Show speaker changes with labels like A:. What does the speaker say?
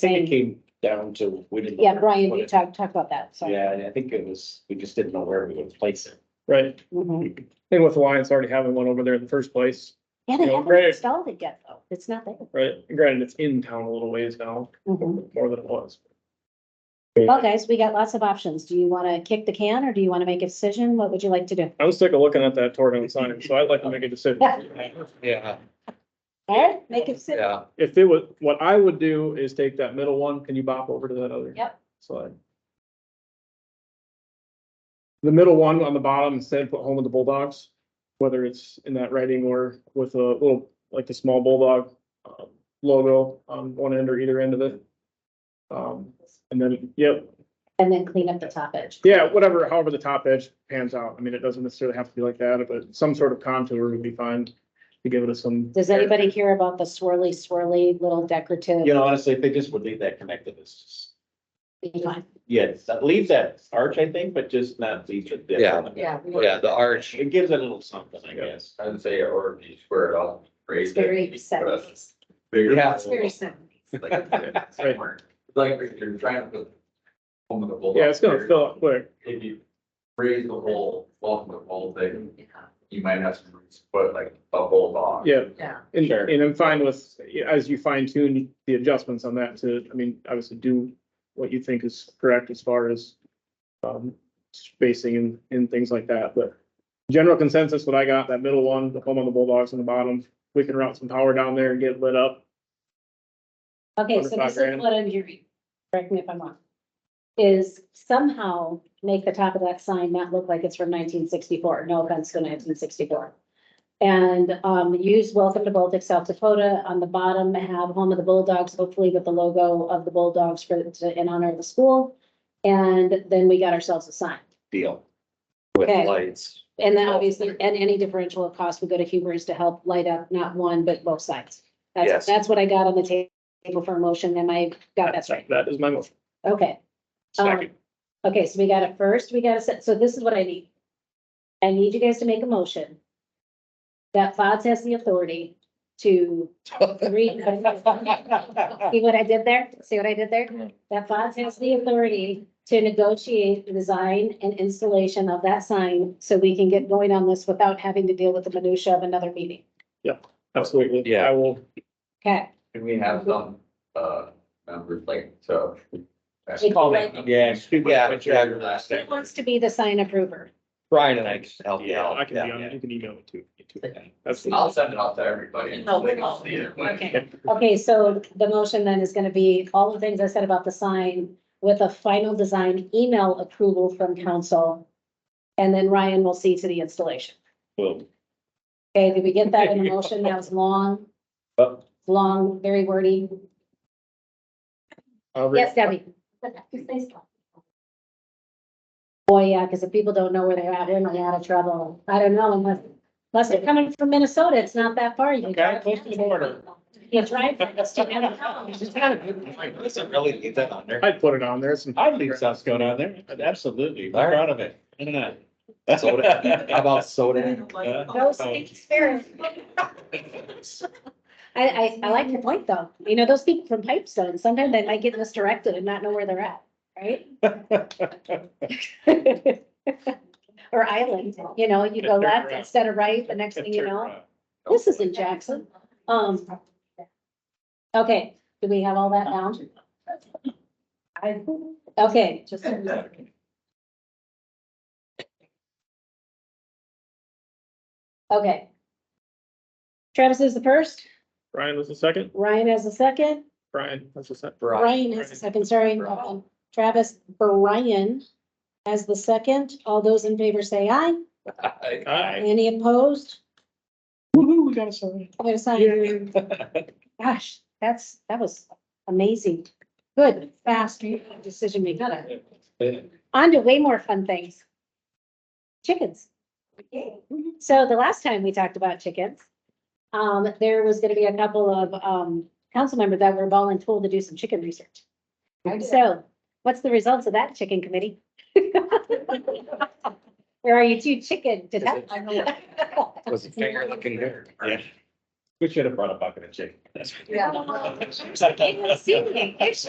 A: think it came down to, we didn't. know
B: Yeah,
A: where to
B: Brian,
A: put
B: you
A: it.
B: talk, talk about that, so.
A: Yeah, and I think it was, we just didn't know where we would place it.
C: Right,
B: Mhm.
C: and with Alliance already having one over there in the first place,
B: Yeah, they
C: You know,
B: haven't
C: great.
B: installed it yet, though. It's not there.
C: right? Granted, it's in town a little ways now,
B: Mhm.
C: more than it was.
B: Well, guys, we got lots of options. Do you want to kick the can or do you want to make a decision? What would you like to do?
C: I was sick of looking at that torn down sign, so I'd like to make a decision.
A: Yeah,
B: Eric, make a decision.
A: yeah.
C: If it would, what I would do is take that middle one, can you bop over to that other?
B: Yep.
C: Slide. The middle one on the bottom, instead put home of the Bulldogs, whether it's in that writing or with a little, like the small Bulldog um, logo on one end or either end of it. Um, and then, yep,
B: And then clean up the top edge.
C: Yeah, whatever, however the top edge pans out. I mean, it doesn't necessarily have to be like that, but some sort of contour would be fine to give it a some.
B: Does anybody care about the swirly, swirly little decorative?
A: You know, honestly, if they just would leave that connected, it's just, yes, leave that arch, I think, but just not leave it. there.
D: Yeah.
B: Yeah.
D: Yeah, the arch,
A: It gives it a little something, I
C: Yeah.
A: guess.
D: I'd say, or you square it off,
B: It's
D: raise it.
B: very seventies.
D: bigger.
A: Yeah.
B: It's very seventies.
D: Like like you're trying to put home of the bulldog.
C: Yeah, it's gonna
D: there.
C: fill up quick.
D: If you raise the whole, welcome the whole thing, you might have some roots, but like a bulldog.
C: Yeah,
B: Yeah.
C: and,
A: Sure.
C: and I'm fine with, as you fine tune the adjustments on that to, I mean, obviously do what you think is correct as far as um, spacing and, and things like that, but general consensus, what I got, that middle one, the home on the Bulldogs on the bottom, we can route some power down there and get it lit up.
B: Okay, so this is what I'm hearing, correct me if I'm wrong, is somehow make the top of that sign not look like it's from nineteen sixty-four, no offense to nineteen sixty-four. And, um, use welcome to Baltic, South Dakota, on the bottom, have home of the Bulldogs, hopefully with the logo of the Bulldogs for, to- in honor of the school. And then we got ourselves a sign.
A: Deal.
B: Okay.
A: With lights.
B: And then obviously, and any differential of cost would go to Hubers to help light up not one, but both sides. That's,
A: Yes.
B: that's what I got on the ta- table for a motion, and I got Oh, that's right.
C: That is my motion.
B: Okay. um,
A: Second.
B: Okay, so we got it first, we got a set, so this is what I need. I need you guys to make a motion. That FODS has the authority to read. See what I did there? See what I did there? That FODS has the authority to negotiate the design and installation of that sign so we can get going on this without having to deal with the minutia of another meeting.
C: Absolutely.
A: Yeah.
C: I will,
B: Okay.
D: Can we have some, uh, numbers like, so.
B: Like- Call them.
A: Yeah. shoot,
D: Yeah,
A: what's
D: yeah.
A: your last
B: Who
A: name?
B: wants to be the sign approver?
A: Brian and I just help you
C: yeah,
A: out.
C: I can be on
A: Yeah.
C: it. You can email it too.
A: Okay.
C: That's,
D: I'll send it out to everybody.
E: No, we
D: They can
E: won't.
D: see it.
B: Oh, Okay, okay, so the motion then is gonna be all the things I said about the sign with a final design email approval from council. And then Ryan will see to the installation.
A: Boom.
B: Okay, did we get that in the motion? That was long,
A: But
B: long, very wordy.
C: I'll re-
B: Yes, Debbie? Boy, yeah, because if people don't know where they're at, they're not out of trouble. I don't know unless, unless they're coming from Minnesota, it's not that far. You can
A: Okay,
B: drive-
A: close to the border.
B: You drive. It's
A: She's got a good point. Listen, really leave that on there.
C: I'd put it on there. Some,
A: I'd leave South Dakota on there. Absolutely.
D: All
A: We're
D: right.
A: proud of it. Why not?
D: Soda, how about soda?
B: No stinking spirit. I, I, I like your point though. You know, those people from Pipestone, sometimes they might get misdirected and not know where they're at, right? Or island, you know, you go left instead of right, the next thing you know, this is in Jackson. Um, okay, do we have all that down?
E: I,
B: Okay,
E: just.
B: okay. Travis is the first,
C: Brian was the second.
B: Ryan has the second,
C: Brian was the second.
B: Brian has the second, sorry, um, Travis, Brian has the second. All those in favor say aye.
C: Aye.
B: Any opposed?
C: Woo-hoo, we got a sign.
B: I'm gonna sign. Gosh, that's, that was amazing. Good, fast decision making. On to way more fun things. Chickens. So the last time we talked about chickens, um, there was gonna be a couple of, um, council members that were voluntold to do some chicken research. So what's the results of that chicken committee? Or are you too chicken to
D: Is it-
B: that?
D: Was it finger looking good?
A: Yeah. We should have brought a bucket of chicken. That's
E: Yeah.
B: It was singing. It's-